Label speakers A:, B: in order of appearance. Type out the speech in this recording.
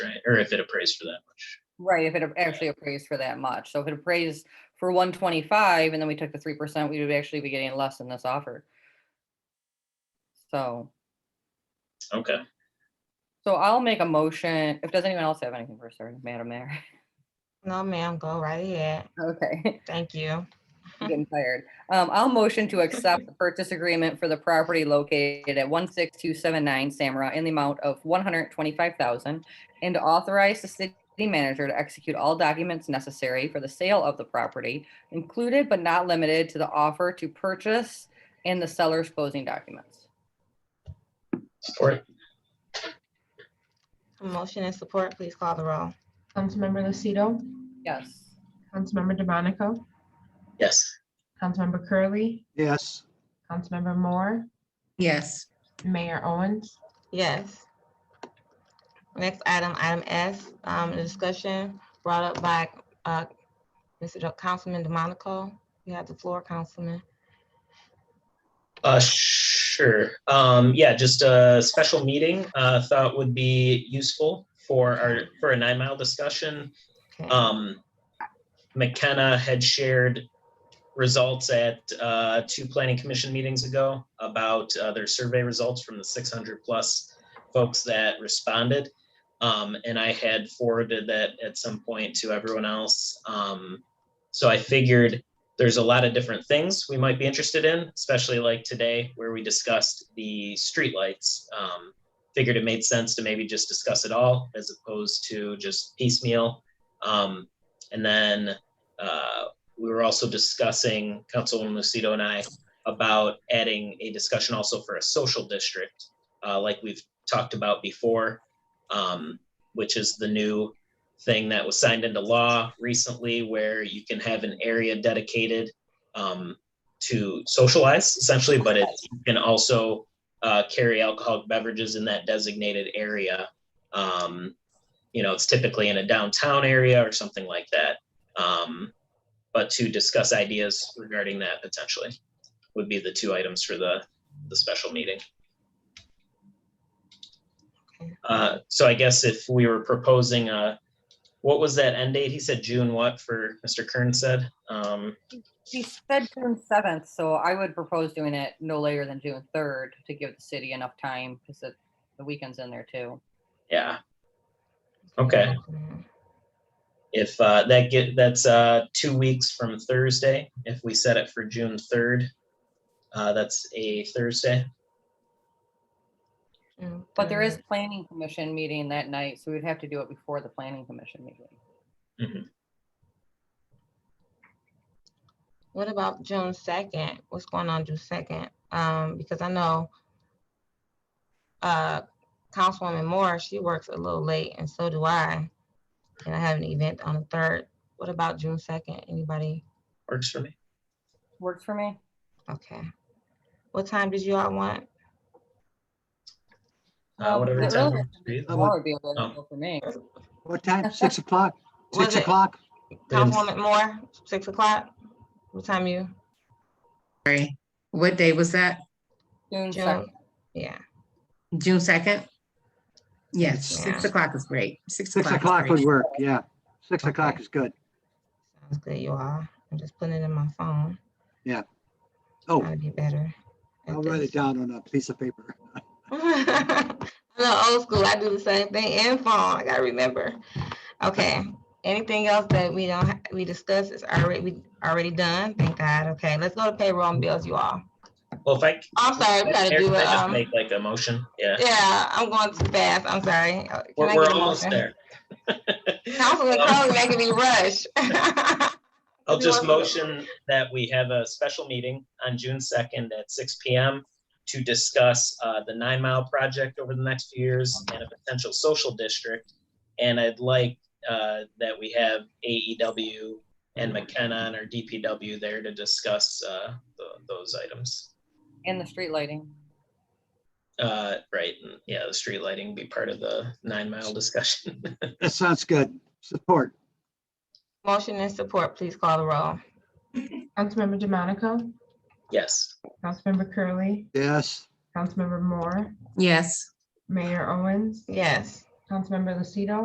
A: or if it appraised for that much.
B: Right, if it ap- actually appraised for that much. So if it appraised for one twenty-five and then we took the three percent, we would actually be getting less than this offer. So,
A: Okay,
B: so I'll make a motion. If, does anyone else have anything for certain, Madam Mayor?
C: No, ma'am, go right ahead.
B: Okay.
C: Thank you.
B: I'm getting tired. Um, I'll motion to accept the purchase agreement for the property located at one six two seven nine Samra in the amount of one hundred twenty-five thousand and to authorize the city manager to execute all documents necessary for the sale of the property, included but not limited to the offer to purchase and the seller's closing documents.
A: support,
C: Motion and support, please call the roll.
D: Councilmember Lucido,
B: Yes.
D: Councilmember DeMonico,
A: yes,
D: Councilmember Curley,
E: yes,
D: Councilmember Moore,
F: yes,
D: Mayor Owens,
C: Yes. Next item, item S, um, the discussion brought up by, uh, Mr. Jo- Councilman DeMonico. You have the floor, Councilman.
A: uh, sure, um, yeah, just a special meeting, uh, thought would be useful for our, for a nine mile discussion.
C: Okay.
A: um, McKenna had shared results at uh, two planning commission meetings ago about uh, their survey results from the 600 plus folks that responded. Um, and I had forwarded that at some point to everyone else. Um, so I figured there's a lot of different things we might be interested in, especially like today where we discussed the streetlights. Um, figured it made sense to maybe just discuss it all as opposed to just piecemeal um, and then uh, we were also discussing, Councilwoman Lucido and I, about adding a discussion also for a social district, uh, like we've talked about before, um, which is the new thing that was signed into law recently where you can have an area dedicated um, to socialize essentially, but it you can also uh, carry alcoholic beverages in that designated area. Um, you know, it's typically in a downtown area or something like that. Um, but to discuss ideas regarding that potentially would be the two items for the, the special meeting. Uh, so I guess if we were proposing a, what was that end date? He said June what for Mr. Kern said? Um,
B: She said June seventh, so I would propose doing it no later than June third to give the city enough time because it, the weekend's in there too.
A: yeah, okay. If uh, that get that's uh, two weeks from Thursday, if we set it for June third, uh, that's a Thursday.
B: But there is planning commission meeting that night, so we'd have to do it before the planning commission meeting.
C: What about June second? What's going on June second? Um, because I know uh, Councilwoman Moore, she works a little late and so do I. And I have an event on the third. What about June second? Anybody?
A: Works for me.
B: Works for me.
C: Okay. What time did you all want?
A: Uh,
B: Um,
C: Oh,
A: whatever
B: the
A: time.
B: earliest
A: works for you.
E: Oh,
B: Tomorrow would be a good
A: Oh.
B: deal for me.
E: what time? Six o'clock, six
C: Was it
E: o'clock?
C: Councilwoman Moore, six o'clock? What time you?
F: sorry. What day was that?
B: June
C: June.
B: second.
C: Yeah,
F: June second? Yes, six
C: Yeah.
F: o'clock is great. Six
E: Six
F: o'clock
E: o'clock would
F: is great.
E: work, yeah. Six o'clock
C: Okay.
E: is good.
C: sounds good, you all. I'm just putting it in my phone.
E: Yeah. Oh.
C: That'd be better. at
E: I'll write
C: this.
E: it down on a piece of paper.
C: I'm not old school. I do the same thing in phone. I gotta remember. Okay. Anything else that we don't ha- we discussed is already we already done. Thank God. Okay, let's go to payroll and bills, you all. Oh,
A: Well, if I. c-
C: I'm sorry, we gotta
A: Eric,
C: do
A: can I
C: it.
A: just
C: Um,
A: Make like a motion, yeah.
C: yeah, I'm going too fast. I'm sorry. Uh, can I
A: We're, we're
C: get a
A: almost
C: motion?
A: there.
C: Councilman
A: Um,
C: Crowley making me rush.
A: I'll just
C: Everyone-
A: motion that we have a special meeting on June second at six P M to discuss, uh, the Nine Mile Project over the next few years and a potential social district. And I'd like, uh, that we have AEW and McKenna and our DPW there to discuss, uh, tho- those items.
B: And the street lighting.
A: Uh, right, and yeah, the street lighting be part of the Nine Mile discussion.
E: That sounds good. Support,
C: Motion and support, please call the roll.
D: Councilmember DeMonico,
A: Yes.
D: Councilmember Curley,
E: yes.
D: Councilmember Moore,
F: Yes.
D: Mayor Owens,
C: Yes.
D: Councilmember Lucido,